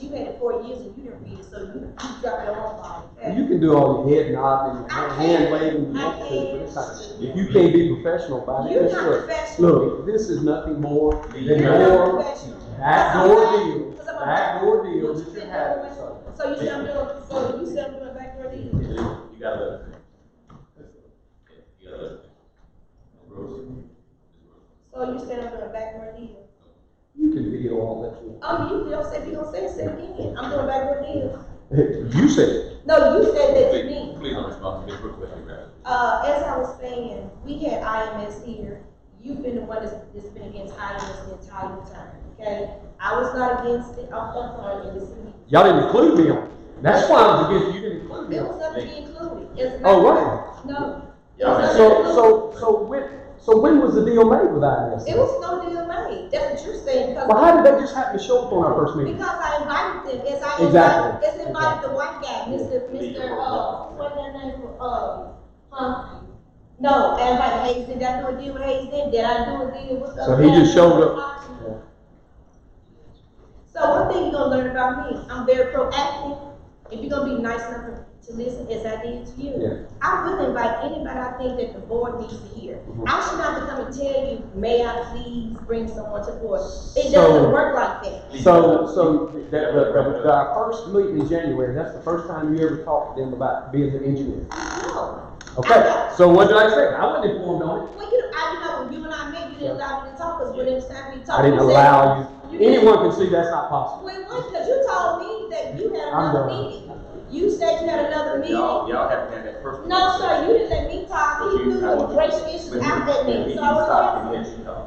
You had it four years and you didn't read it, so you, you dropped your own ball. You can do all your head nodding, and I hand can't. waving, you I want to, but it's can't. like, if you can't be professional about it, You're that's not what. professional. Look, this is nothing more You're than not your professional. backdoor deal, Because I'm a- backdoor deal What you that been you're having, so. doing? So you said I'm doing, so you said I'm doing backdoor deals? You gotta let it. You gotta let it. So you said I'm doing backdoor deals? You can video all that you Oh, you, you don't say, you don't say it, say it again. I'm doing backdoor deals. want. You said it. No, you said that to me. Please, please don't respond to me, real quick, man. Uh, as I was saying, we had IMS here, you've been the one that's, that's been against IMS the entire time, okay? I was not against it, I'm, I'm sorry, it was, Y'all didn't include me on it. That's why I was against, you didn't include me there on it. was nothing to be included. It's not- Oh, wow. No, Y'all had- So, so, so when, so when was the deal made with it IMS? was no deal made, that's what you're saying, Well, because, how did they just happen to show up on our first meeting? because I invited them, as I invited, Exactly. as invited the white guy, Mr. Mr. Uh, what's that name, uh, huh? No, I invited Hayes, did I do a deal with Hayes then, did I do a deal with? So he just showed up. Yeah. So one thing you're gonna learn about me, I'm very proactive. If you're gonna be nice enough to listen as I did to Yeah. you, I wouldn't invite anybody I think that the board needs to hear. Mhm. I should not come and tell you, may I please bring someone to the board? It So- doesn't work like that. So, so that, that, that, that our first meeting in January, that's the first time you ever talked to them about being an engineer. No. Okay, so what did I say? I wasn't informed on it. Well, you, I, you know, when you and I met, you didn't allow me to talk, because when it was time for me to talk. I didn't you said- allow you, You- anyone can see that's not possible. Well, it wasn't, because you told me that you had I'm another done. meeting. You said you had another meeting. Y'all, y'all haven't had that personal. No, sir, you didn't let me talk, he threw some racial issues out that name, so I was Stop, asking. you know.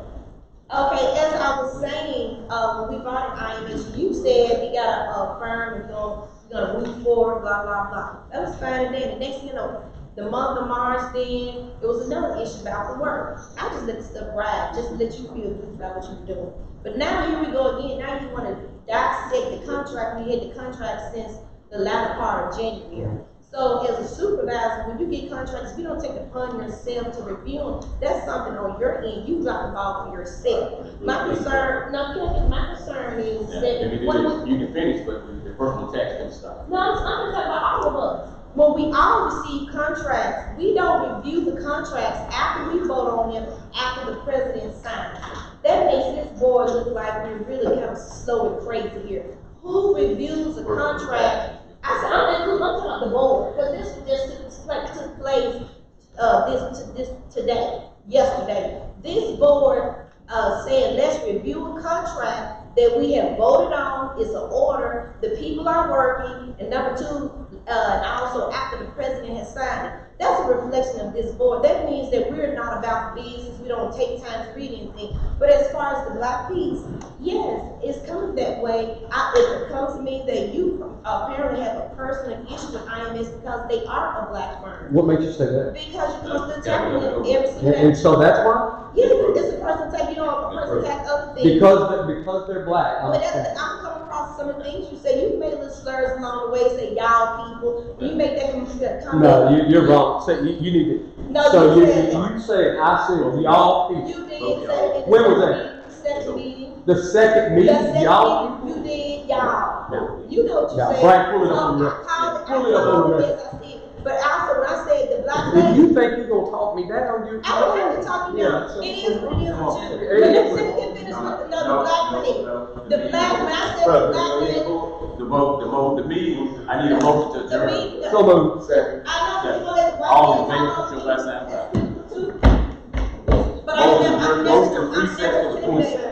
Okay, as I was saying, uh, when we brought in IMS, you said we got a, a firm, and gonna, we gonna move forward, blah, blah, blah. That was fine, and then the next, thing you know, the month of March, then, it was another issue about the work. I just let the stuff ride, just to let you feel good about what you're doing. But now here we go again, now you wanna dissect the contract, we had the contract since the latter part of January. So as a supervisor, when you get contracts, if you don't take it upon yourself to review them, that's something on your end, you drop the ball for yourself. My concern, no, Kevin, my concern is Yeah, that. let me do when we- this. You can finish, but the personal tax can stop. no, I'm, I'm talking about all of us. When we all receive contracts, we don't review the contracts after we vote on them, after the president signs. That makes this board look like we're really kind of slow and crazy here. Who reviews a contract? I said, I'm including, I'm talking about the board, because this was just took pla- took place, uh, this, to- this, today, yesterday. This board, uh, said, let's review a contract that we have voted on is an order, the people are working, and number two, uh, and also after the president has signed it. That's a reflection of this board, that means that we're not about business, we don't take time to read anything. But as far as the black piece, yes, it's coming that way. I, it comes to me that you apparently have a personal issue with IMS because they are a black firm. What made you say that? Because you come to the table with them every And, single day. and so that's why? Yeah, it's a personal tax, you don't have a personal tax other things. Because, they- because they're black. Uh, I'm But that's, saying. I'm coming across some of the things you say, you made little slurs along the way, say y'all people, you make that com- that comment. No, you, you're wrong. Say, you, you need to, No, so you, you said, you said, I said, y'all people. you did say it. When was that? Second meeting. The second The meeting, second y'all. meeting, you did, y'all. No. You know what you Yeah, said. Frank, pull it up So on I your- called, pull it I up on called your- this, I said, but also when I said the black If lady, you think you're gonna talk me down, you're. I don't have to talk you Yeah, down, so- it is, it is what you. Hey, But let's sit and finish with another black lady. The black, when I said the black lady, The mo, the mo, the meeting, I need a motion the to adjourn. meeting, the So moved. Second. I know people that's white. All men, in favor, I know put your left hand people- But I never, I never, Motion to I recess to the never said that.